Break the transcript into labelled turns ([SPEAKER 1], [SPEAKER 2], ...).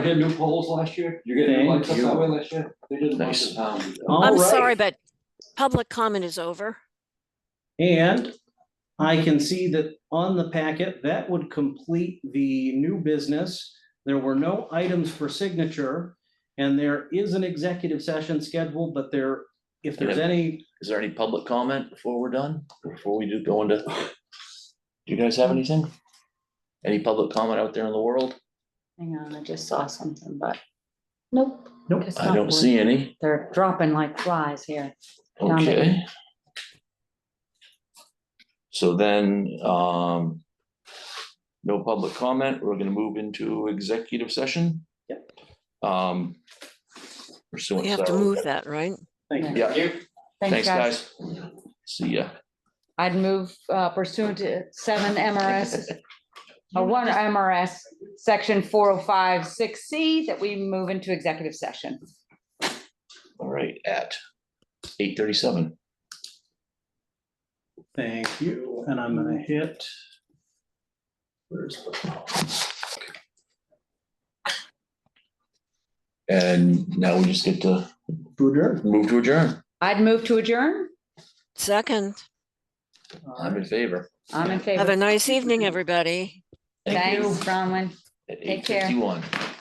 [SPEAKER 1] did new poles last year, you get new
[SPEAKER 2] Thank
[SPEAKER 1] lights up
[SPEAKER 2] you.
[SPEAKER 1] that way last year, they did a bunch
[SPEAKER 3] Nice.
[SPEAKER 1] of towns.
[SPEAKER 2] All
[SPEAKER 4] I'm
[SPEAKER 2] right.
[SPEAKER 4] sorry, but public comment is over.
[SPEAKER 2] And I can see that on the packet, that would complete the new business. There were no items for signature. And there is an executive session scheduled, but there, if there's
[SPEAKER 3] Yeah.
[SPEAKER 2] any,
[SPEAKER 3] Is there any public comment before we're done, before we do go into? Do you guys have
[SPEAKER 4] Mm.
[SPEAKER 3] anything? Any public comment out there in the world?
[SPEAKER 5] Hang on, I just saw something, but nope.
[SPEAKER 2] Nope.
[SPEAKER 5] it's
[SPEAKER 3] I
[SPEAKER 5] not
[SPEAKER 3] don't
[SPEAKER 5] wood.
[SPEAKER 3] see any.
[SPEAKER 5] They're dropping like flies here. Found it.
[SPEAKER 3] Okay. So then, um. No public comment, we're gonna move into executive session. Yep. Um. Pursuant.
[SPEAKER 4] We have to
[SPEAKER 3] so-
[SPEAKER 4] move that, right?
[SPEAKER 2] thank you.
[SPEAKER 3] Yeah, thanks, guys. See ya.
[SPEAKER 5] I'd move uh, pursuant to seven MRS, or one MRS, section four oh five six C, that we move into executive session.
[SPEAKER 3] All right, at eight thirty-seven.
[SPEAKER 2] Thank you. And I'm gonna hit.
[SPEAKER 3] And now we just get to
[SPEAKER 2] Booter.
[SPEAKER 3] move to adjourn.
[SPEAKER 5] I'd move to adjourn.
[SPEAKER 4] Second,
[SPEAKER 3] I'm in favor.
[SPEAKER 5] I'm in
[SPEAKER 4] have a
[SPEAKER 5] favor.
[SPEAKER 4] nice evening, everybody.
[SPEAKER 3] Thank you.
[SPEAKER 5] Thanks, Bronwyn.
[SPEAKER 3] At eight
[SPEAKER 5] Take care.
[SPEAKER 3] fifty-one.